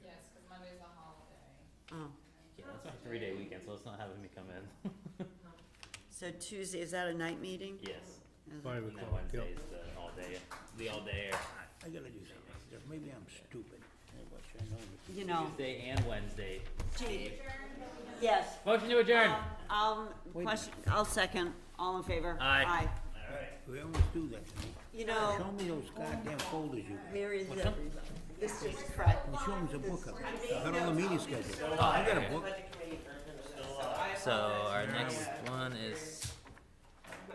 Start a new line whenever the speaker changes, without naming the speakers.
three-day weekend, so let's not have him come in.
So Tuesday, is that a night meeting?
Yes,
Yeah.
Five
and then
o'clock, yep.
Wednesday's the all-day, the all-day.
I gotta do something, There- maybe I'm stupid, I wish I know this.
You know,
Tuesday and Wednesday.
gee, yes.
Motion to adjourn.
Um, Um, question, I'll second, all in favor?
Aye.
All right. We always do that to me.
You know,
Show me those goddamn folders you got,
where is everybody? This is crap.
and show 'em the book up, I got all the meeting schedule. I got a book,
So our uh, next one is